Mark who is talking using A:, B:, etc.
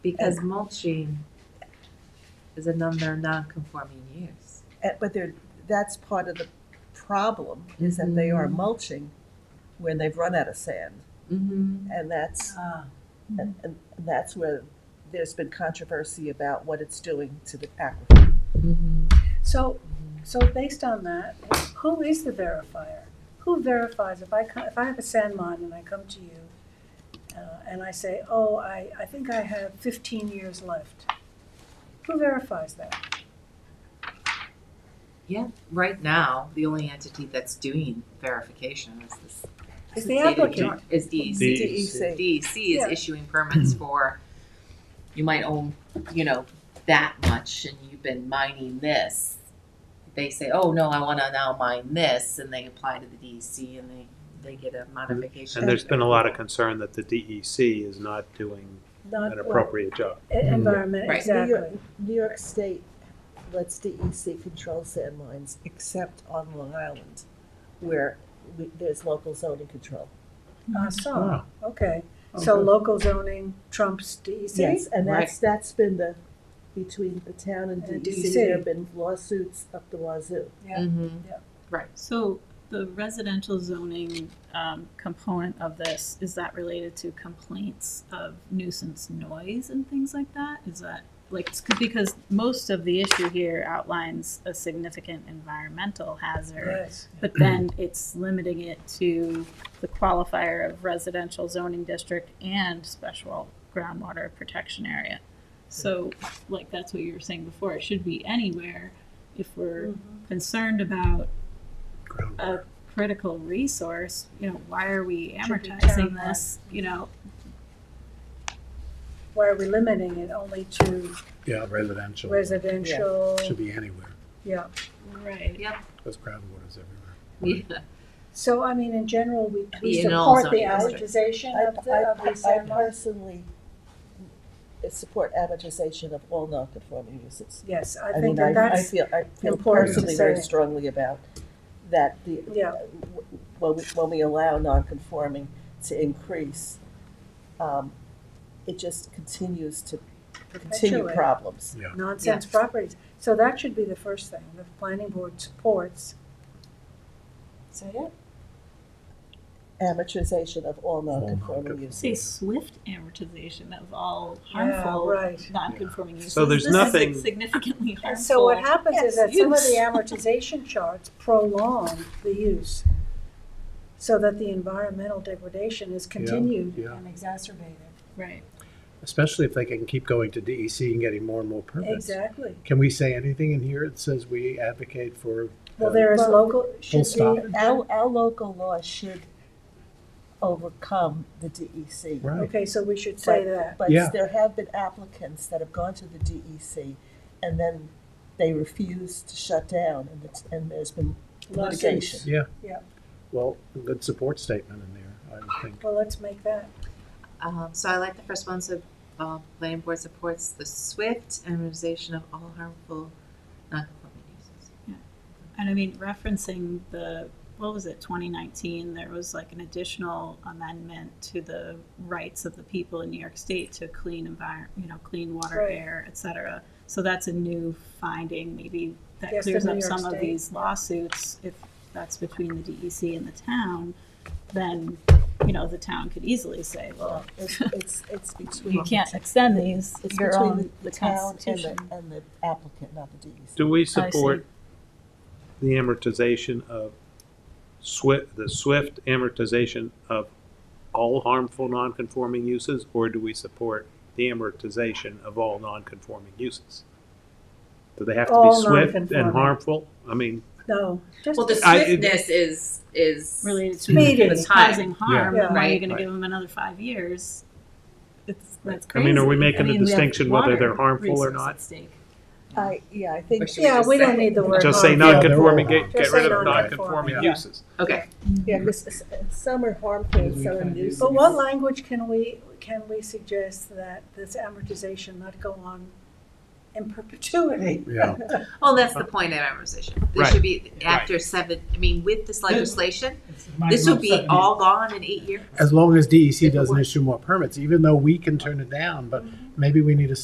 A: Because mulching is another non-conforming use.
B: And- But they're, that's part of the problem, is that they are
A: Mhm.
B: mulching when they've run out of sand.
A: Mm-hmm.
B: And that's,
A: Ah,
B: and, and that's where there's been controversy about what it's doing to the aquifer.
A: mm-hmm.
C: So, so based on that, who is the verifier? Who verifies if I, co- if I have a sand mine and I come to you uh, and I say, oh, I, I think I have fifteen years left? Who verifies that?
A: Yeah, right now, the only entity that's doing verification is this.
C: Is
A: is state
C: the
A: of
C: applicant.
A: Georgia- Is DEC.
B: DEC.
A: DEC
C: Yeah.
A: is issuing permits for, you might own, you know, that much and you've been mining this. They say, oh, no, I wanna now mine this, and they apply to the DEC and they, they get a modification.
D: And there's been a lot of concern that the DEC is not doing
C: Not
D: an appropriate job.
C: e- Environment,
A: Right.
C: exactly.
B: New York State lets DEC control sand mines, except on Long Island, where we- there's local zoning control.
C: Ah, so,
D: Wow.
C: okay. So local zoning trumps E DEC?
B: Yes, and that's, that's been the, between the town and
C: And
B: DEC,
C: DEC.
B: there have been lawsuits up the wazoo.
C: Yeah.
A: Mm-hmm,
C: Yeah.
A: right.
E: So the residential zoning um, component of this, is that related to complaints of nuisance noise and things like that? Is that, like, it's c- because most of the issue here outlines a significant environmental hazard,
C: Yes.
E: but then it's limiting it to the qualifier of residential zoning district and special groundwater protection area. So, like, that's what you were saying before, it should be anywhere if we're concerned about a critical resource, you know, why are we
C: Should be
E: amortizing
C: town-wide.
E: this, you know?
C: Why are we limiting it only to
F: Yeah, residential.
C: residential?
F: Should be anywhere,
C: Yeah.
E: Right.
A: Yep.
F: because groundwater's everywhere.
A: Yeah.
C: So, I mean, in general, we, we
A: In all
C: support the
A: zoning districts.
C: amortization
B: I,
C: of the,
B: I,
C: of the
B: I
C: sand mines.
B: personally support amortization of all non-conforming uses.
C: Yes, I
B: I
C: think
B: mean,
C: that
B: I, I
C: that's,
B: feel, I feel
C: important to
B: personally very
C: say.
B: strongly about that the,
C: yeah,
B: when we, when we allow non-conforming to increase, um, it just continues to continue
C: perpetuate
B: problems.
A: Yes.
C: nonsense properties. So that should be the first thing, the planning board supports. Say it.
B: Amortization of all non-conforming
F: non-conforming.
B: uses.
E: Say swift amortization of all
C: Yeah,
E: harmful,
C: right.
E: non-conforming uses.
D: So there's
E: This is
D: nothing-
E: Significantly harmful.
C: And so what happens is
E: Yes,
C: that some of
E: use.
C: the amortization charts prolong the use so that the environmental degradation is continued
F: yeah.
C: and exacerbated.
E: Right.
F: Especially if they can keep going to DEC and getting more and more permits.
C: Exactly.
F: Can we say anything in here that says we advocate for?
C: Well, there is
B: Well,
C: local, should
F: stop.
C: be,
B: Our, our local law should overcome the E DEC.
F: Right,
C: okay, so we should say
B: Right.
C: that.
B: But
F: Yeah.
B: there have been applicants that have gone to the DEC and then they refuse to shut down and it's, and there's been litigation.
F: well, a good support statement in there, I would think.
C: Well, let's make that.
A: Um, so I like the first one, so, uh, planning board supports the swift amortization of all harmful non-conforming uses.
E: And I mean, referencing the, what was it, 2019, there was like an additional amendment to the rights of the people in New York State to clean environment, you know, clean water,
C: Right.
E: air, et cetera. So that's a new finding, maybe that
C: Yes, in
E: clears
C: New
E: up
C: York
E: some
C: State.
E: of these lawsuits. If that's between the DEC and the town, then, you know, the town could easily say, well,
B: It's, Uh, it's, it's between.
E: you can't extend these,
B: It's
E: your
B: between
E: own,
B: the
E: the
B: town and
E: Constitution.
B: the, and the applicant, not the E DEC.
D: Do we support the amortization of swift, the swift amortization of all harmful nonconforming uses, or do we support the amortization of all nonconforming uses? Do they have to be
C: All
D: swift and
C: nonconforming.
D: harmful? I mean,
C: No, just
A: Well, the
D: I- it-
A: swiftness is, is.
E: related to
C: Speeding.
E: it's causing harm,
C: Yeah.
E: and why are you
D: Right.
E: gonna give them another five years? It's, that's
D: I
E: crazy.
D: mean, are we making a
E: mean, we have
D: distinction whether they're
E: water
D: harmful or
E: resource
D: not?
E: at stake.
B: I, yeah, I think,
A: Or should
C: Yeah,
A: just
C: we
A: say-
C: don't need the word.
D: just say
F: no.
C: harmful.
D: nonconforming, get,
F: Just
D: get
C: say
D: rid of
C: nonconforming,
D: nonconforming
F: yeah.
D: uses.
A: Okay,
B: yeah, because some are harmful and some are nuisance.
C: But what language can we, can we suggest that this amortization not go on in perpetuity?
F: Yeah,
A: well, that's the point of amortization. This
D: Right.
A: should be after seven, I mean, with this legislation,
G: Might
A: this
G: as well
A: would be
G: set me-
A: all gone in eight years.
F: E as long as DEC doesn't issue more permits, even though we can turn it down, but maybe we need a